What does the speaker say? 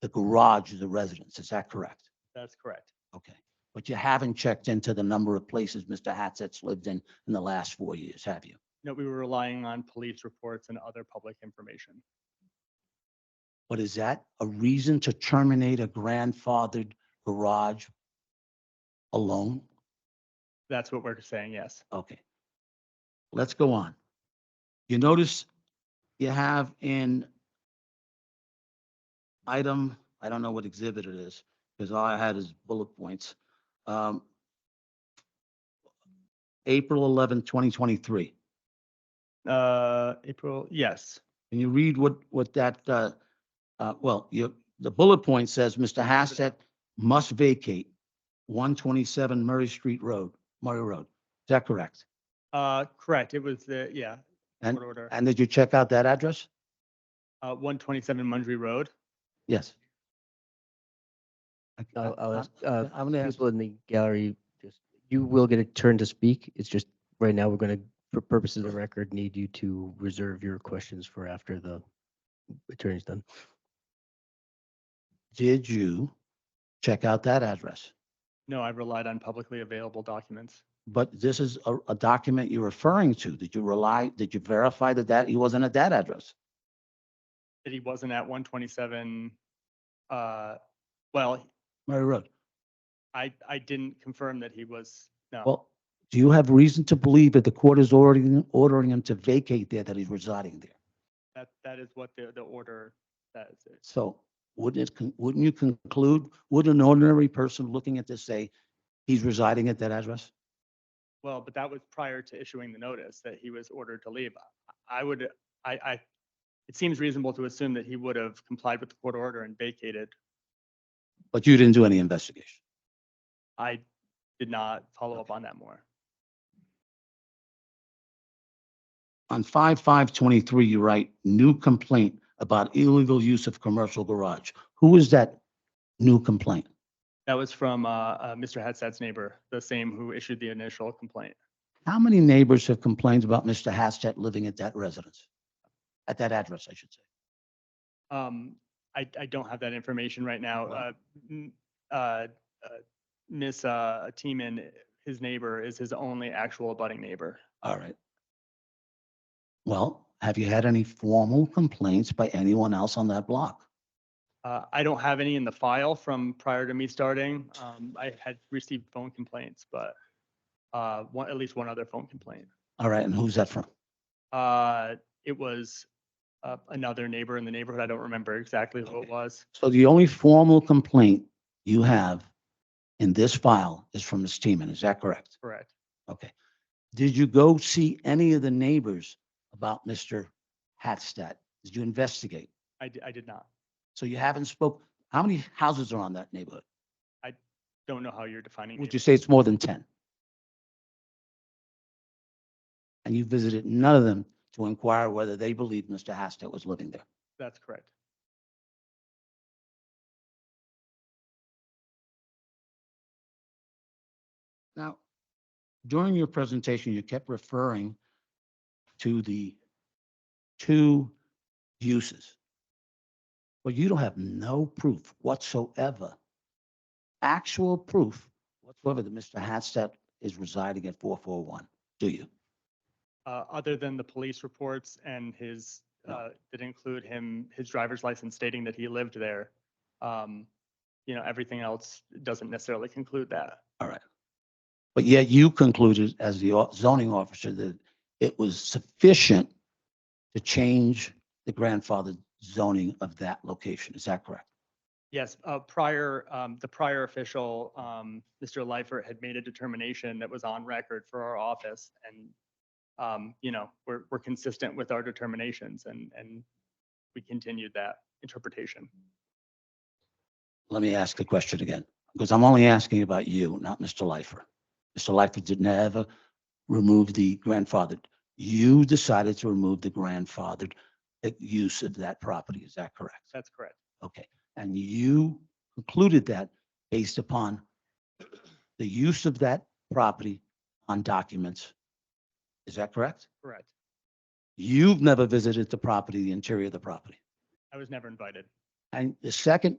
the garage of the residence. Is that correct? That's correct. Okay. But you haven't checked into the number of places Mr. Hatstat's lived in in the last four years, have you? No, we were relying on police reports and other public information. But is that a reason to terminate a grandfathered garage alone? That's what we're saying, yes. Okay. Let's go on. You notice you have in item, I don't know what exhibit it is, because all I had is bullet points. Um, April 11, 2023. Uh, April, yes, Can you read what, what that, uh, uh, well, you, the bullet point says, Mr. Hastet must vacate 127 Murray Street Road, Murray Road. Is that correct? uh, correct. It was the, yeah. And- court Order, And did you check out that address? uh, one twenty-seven Mundry Road. Yes. I- I'll, I'll I- ask, uh, I'm gonna ask, people in the gallery, just, you will get a turn to speak. It's just, right now, we're gonna, for purposes of record, need you to reserve your questions for after the attorney's done. did you check out that address? No, I relied on publicly available documents. But this is a, a document you're referring to. Did you rely, did you verify that that, he wasn't at that address? That he wasn't at one twenty-seven, uh, well, Murray Road. I, I didn't confirm that he was, no, Well, do you have reason to believe that the court is ordering, ordering him to vacate there, that he's residing there? that, that is what the, the order says. It's- So wouldn't it, con- wouldn't you conclude, would an ordinary person looking at this say, he's residing at that address? Well, but that was prior to issuing the notice that he was ordered to leave. I I would, I, I, it seems reasonable to assume that he would have complied with the court order and vacated. But you didn't do any investigation. I did not follow up on that more. On five, five, twenty-three, you write new complaint about illegal use of commercial garage. Who is that new complaint? That was from, uh, uh, Mr. Hatsat's neighbor, the same who issued the initial complaint. How many neighbors have complained about Mr. Hastat living at that residence? At that address, I should say. Um, I, I don't have that information right now. Well- Uh, m- uh, uh, Ms. uh, Teeman, his neighbor, is his only actual abutting neighbor. All right. Well, have you had any formal complaints by anyone else on that block? Uh, I don't have any in the file from prior to me starting. Um, I had received phone complaints, but uh, one, at least one other phone complaint. All right, and who's that from? Uh, it was uh, another neighbor in the neighborhood. I don't remember exactly who it Okay. was. So the only formal complaint you have in this file is from Ms. Teeman, is that correct? Correct. Okay. Did you go see any of the neighbors about Mr. Hatstat? Did you investigate? I, di- I did not. So you haven't spoke, how many houses are on that neighborhood? Don't know how you're defining. Would you neighbor. say it's more than 10? And you visited none of them to inquire whether they believed Mr. Hatstat was living there? That's correct. Now, during your presentation, you kept referring to the two uses. But you don't have no proof whatsoever, actual proof whatsoever that Mr. Hatstat is residing at 441, do you? Uh, other than the police reports and his, No. uh, that include him, his driver's license stating that he lived there. Um, you know, everything else doesn't necessarily conclude that. But yet you concluded as the au- zoning officer that it was sufficient to change the grandfathered zoning of that location. Is that correct? Yes, uh, prior, um, the prior official, um, Mr. Lifer had made a determination that was on record for our office and, um, you know, we're, we're consistent with our determinations and, and we continued that interpretation. let me ask the question again, because I'm only asking about you, not Mr. Lifer. Mr. Lifer did never remove the grandfathered. You decided to remove the grandfathered uh, use of that property. Is that correct? That's correct. Okay. And you concluded that based upon the use of that property on documents. Is that correct? Correct. You've never visited the property, the interior of the property. I was never invited. And the second